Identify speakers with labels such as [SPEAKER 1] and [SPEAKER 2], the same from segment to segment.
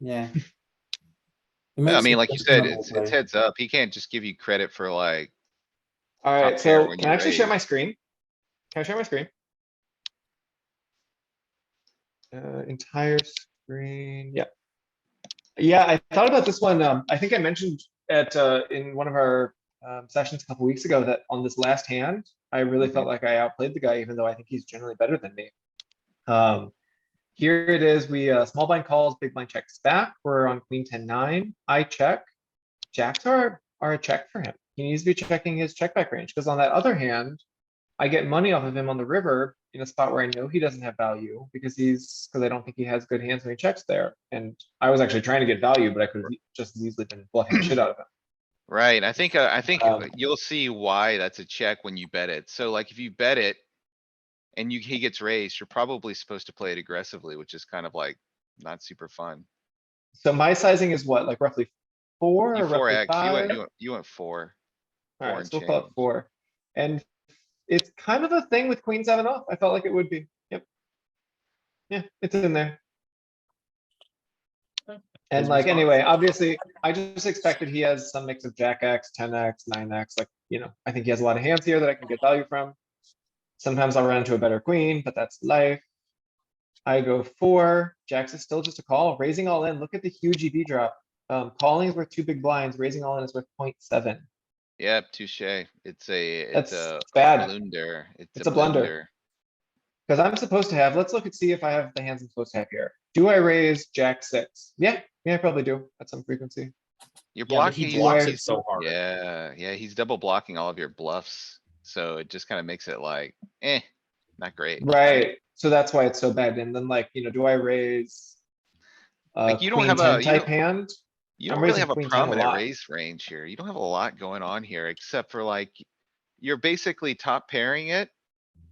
[SPEAKER 1] yeah. It
[SPEAKER 2] I
[SPEAKER 1] makes
[SPEAKER 2] mean,
[SPEAKER 1] it
[SPEAKER 2] like you
[SPEAKER 1] less
[SPEAKER 2] said,
[SPEAKER 1] trouble
[SPEAKER 2] it's, it's
[SPEAKER 1] play.
[SPEAKER 2] heads up. He can't just give you credit for like,
[SPEAKER 3] Alright,
[SPEAKER 2] Top pair
[SPEAKER 3] so
[SPEAKER 2] when
[SPEAKER 3] can
[SPEAKER 2] you
[SPEAKER 3] I actually share
[SPEAKER 2] raise.
[SPEAKER 3] my screen? Can I share my screen? Uh, entire screen, yeah. Yeah, I thought about this one. Um, I think I mentioned at, uh, in one of our, um, sessions a couple weeks ago that on this last hand, I really
[SPEAKER 2] Mm-hmm.
[SPEAKER 3] felt like I outplayed the guy, even though I think he's generally better than me. Um, here it is. We, uh, small blind calls, big blind checks back. We're on queen ten nine. I check. Jacks are, are a check for him. He needs to be checking his check back range, because on that other hand, I get money off of him on the river in a spot where I know he doesn't have value because he's, because I don't think he has good hands when he checks there. And I was actually trying to get value, but I could have just as easily been bluffing the shit out of him.
[SPEAKER 2] right? I think, uh, I think
[SPEAKER 3] Um,
[SPEAKER 2] you'll see why that's a check when you bet it. So like if you bet it and you, he gets raised, you're probably supposed to play it aggressively, which is kind of like not super fun.
[SPEAKER 3] So my sizing is what, like roughly four
[SPEAKER 2] You
[SPEAKER 3] or
[SPEAKER 2] four
[SPEAKER 3] roughly
[SPEAKER 2] X, you went,
[SPEAKER 3] five?
[SPEAKER 2] you went, you went four. four
[SPEAKER 3] Alright,
[SPEAKER 2] and
[SPEAKER 3] so we'll call it
[SPEAKER 2] change.
[SPEAKER 3] four. And it's kind of a thing with queen seven off. I felt like it would be. Yep. Yeah, it's in there. And
[SPEAKER 1] His
[SPEAKER 3] like,
[SPEAKER 1] response.
[SPEAKER 3] anyway, obviously, I just expected he has some mix of jack X, ten X, nine X, like, you know, I think he has a lot of hands here that I can get value from. Sometimes I'll run into a better queen, but that's life. I go four, jacks is still just a call, raising all in. Look at the huge EV drop. Um, calling is worth two big blinds, raising all in is worth 0.7.
[SPEAKER 2] Yep, touche. It's a, it's
[SPEAKER 3] That's
[SPEAKER 2] a
[SPEAKER 3] bad.
[SPEAKER 2] blunder.
[SPEAKER 3] It's a blunder. Because I'm supposed to have, let's look and see if I have the hands I'm supposed to have here. Do I raise jack six? Yeah, yeah, I probably do at some frequency.
[SPEAKER 4] Yeah,
[SPEAKER 2] You're
[SPEAKER 4] but
[SPEAKER 2] blocking.
[SPEAKER 4] he
[SPEAKER 2] he's-
[SPEAKER 4] blocks
[SPEAKER 3] Where-
[SPEAKER 4] it so hard.
[SPEAKER 2] Yeah, yeah, he's double blocking all of your bluffs, so it just kinda makes it like, eh, not great.
[SPEAKER 3] Right, so that's why it's so bad. And then like, you know, do I raise? Uh,
[SPEAKER 2] Like, you don't
[SPEAKER 3] queen
[SPEAKER 2] have
[SPEAKER 3] ten
[SPEAKER 2] a- you
[SPEAKER 3] type
[SPEAKER 2] don't-
[SPEAKER 3] hand?
[SPEAKER 2] You
[SPEAKER 3] I'm
[SPEAKER 2] don't really
[SPEAKER 3] raising
[SPEAKER 2] have a
[SPEAKER 3] queen ten a
[SPEAKER 2] prominent
[SPEAKER 3] lot.
[SPEAKER 2] raise range here. You don't have a lot going on here, except for like, you're basically top pairing it.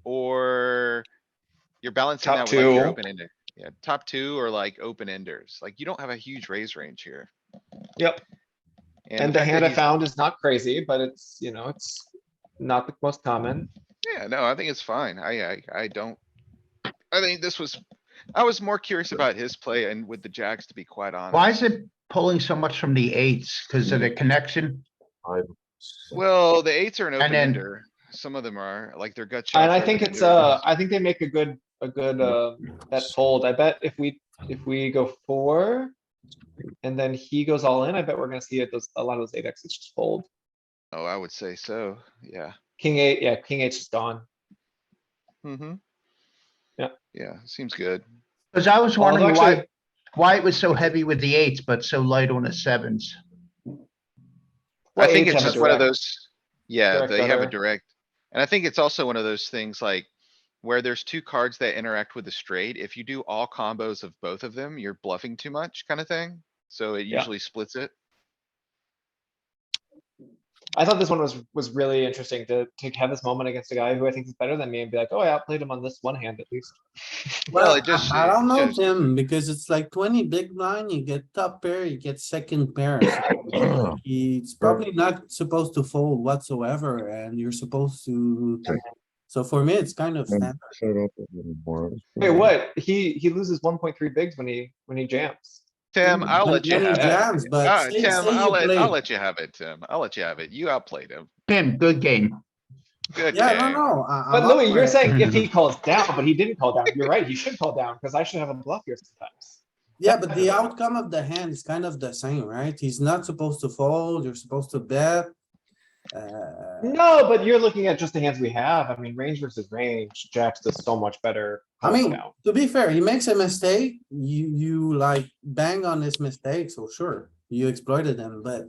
[SPEAKER 2] Or you're balancing
[SPEAKER 3] Top
[SPEAKER 2] that with like your
[SPEAKER 3] two.
[SPEAKER 2] open ender. Yeah, top two or like open enders. Like, you don't have a huge raise range here.
[SPEAKER 3] Yep, and the
[SPEAKER 2] fact that
[SPEAKER 3] hand I
[SPEAKER 2] he's-
[SPEAKER 3] found is not crazy, but it's, you know, it's not the most common.
[SPEAKER 2] Yeah, no, I think it's fine. I, I, I don't. I think this was, I was more curious about his play and with the jacks, to be quite honest.
[SPEAKER 5] Why is it pulling so much from the eights? Because of the connection?
[SPEAKER 2] Well, the eights are an
[SPEAKER 5] And
[SPEAKER 2] open
[SPEAKER 5] then-
[SPEAKER 2] ender. Some of them are, like their gut shots.
[SPEAKER 3] And I
[SPEAKER 2] are
[SPEAKER 3] think
[SPEAKER 2] open
[SPEAKER 3] it's,
[SPEAKER 2] enders.
[SPEAKER 3] uh, I think they make a good, a good, uh, bet fold. I bet if we, if we go four. And then he goes all in, I bet we're gonna see it, those, a lot of those eight X's just fold.
[SPEAKER 2] Oh, I would say so, yeah.
[SPEAKER 3] King eight, yeah, king eight's just gone.
[SPEAKER 2] Mm-hmm.
[SPEAKER 3] Yeah.
[SPEAKER 2] Yeah, seems good.
[SPEAKER 5] Because I was
[SPEAKER 3] Although
[SPEAKER 5] wondering
[SPEAKER 3] actually-
[SPEAKER 5] why, why it was so heavy with the eights, but so light on the sevens.
[SPEAKER 2] I
[SPEAKER 3] Well,
[SPEAKER 2] think
[SPEAKER 3] eights
[SPEAKER 2] it's
[SPEAKER 3] have a
[SPEAKER 2] just one of
[SPEAKER 3] direct-
[SPEAKER 2] those, yeah,
[SPEAKER 3] direct
[SPEAKER 2] they have a
[SPEAKER 3] gutter.
[SPEAKER 2] direct. And I think it's also one of those things like where there's two cards that interact with the straight. If you do all combos of both of them, you're bluffing too much kind of thing. So it
[SPEAKER 3] Yeah.
[SPEAKER 2] usually splits it.
[SPEAKER 3] I thought this one was, was really interesting to, to have this moment against a guy who I think is better than me and be like, oh, I outplayed him on this one hand at least.
[SPEAKER 2] Well, it
[SPEAKER 1] I-
[SPEAKER 2] just-
[SPEAKER 1] I don't know,
[SPEAKER 2] just-
[SPEAKER 1] Tim, because it's like twenty big blind, you get top pair, you get second pair. so He's probably not supposed to fold whatsoever and you're supposed to. So for me, it's kind of standard.
[SPEAKER 3] Wait, what? He, he loses one point three bigs when he, when he jams.
[SPEAKER 2] Tim, I'll let you
[SPEAKER 1] Many
[SPEAKER 2] have it.
[SPEAKER 1] jams,
[SPEAKER 2] Uh,
[SPEAKER 1] But say-
[SPEAKER 2] Tim,
[SPEAKER 1] say you
[SPEAKER 2] I'll let,
[SPEAKER 1] play.
[SPEAKER 2] I'll let you have it, Tim. I'll let you have it. You outplayed him.
[SPEAKER 5] Tim, good game.
[SPEAKER 2] Good
[SPEAKER 1] Yeah, no,
[SPEAKER 2] game.
[SPEAKER 1] no. I- I'm
[SPEAKER 3] But
[SPEAKER 1] up
[SPEAKER 3] Louis,
[SPEAKER 1] for
[SPEAKER 3] you're
[SPEAKER 1] it.
[SPEAKER 3] saying if he calls down, but he didn't call down. You're right, he should call down, because I should have a bluff here sometimes.
[SPEAKER 1] Yeah, but the outcome of the hand is kind of the same, right? He's not supposed to fold, you're supposed to bet. Uh,
[SPEAKER 3] No, but you're looking at just the hands we have. I mean, range versus range, Jack's does so much better.
[SPEAKER 1] I mean-
[SPEAKER 3] calls down.
[SPEAKER 1] To be fair, he makes a mistake, you, you like bang on his mistake, so sure, you exploited him, but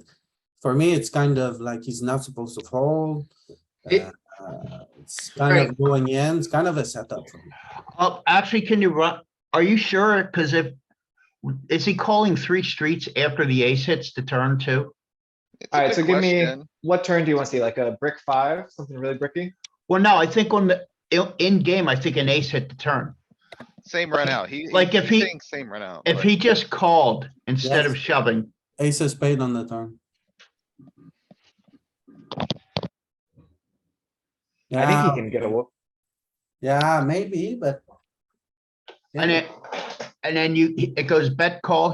[SPEAKER 1] for me, it's kind of like he's not supposed to fold.
[SPEAKER 5] It-
[SPEAKER 1] Uh, It's kind of going in, it's kind of a setup. for me.
[SPEAKER 5] Oh, actually, can you run, are you sure? Because if, is he calling three streets after the ace hits the turn too?
[SPEAKER 2] It's a good
[SPEAKER 3] Alright, so give me-
[SPEAKER 2] question.
[SPEAKER 3] What turn do you want to see? Like a brick five, something really bricky?
[SPEAKER 5] Well, no, I think on the, in- in game, I think an ace hit the turn.
[SPEAKER 2] Same run out. He,
[SPEAKER 5] Like, if
[SPEAKER 2] he's
[SPEAKER 5] he-
[SPEAKER 2] saying Same run out.
[SPEAKER 5] If
[SPEAKER 2] but-
[SPEAKER 5] he just called instead of
[SPEAKER 1] Yes.
[SPEAKER 5] shoving,
[SPEAKER 1] Ace of spade on the turn.
[SPEAKER 3] I think he
[SPEAKER 1] Yeah,
[SPEAKER 3] can get a whoop.
[SPEAKER 1] yeah, maybe, but.
[SPEAKER 5] and it, and then you, it goes bet call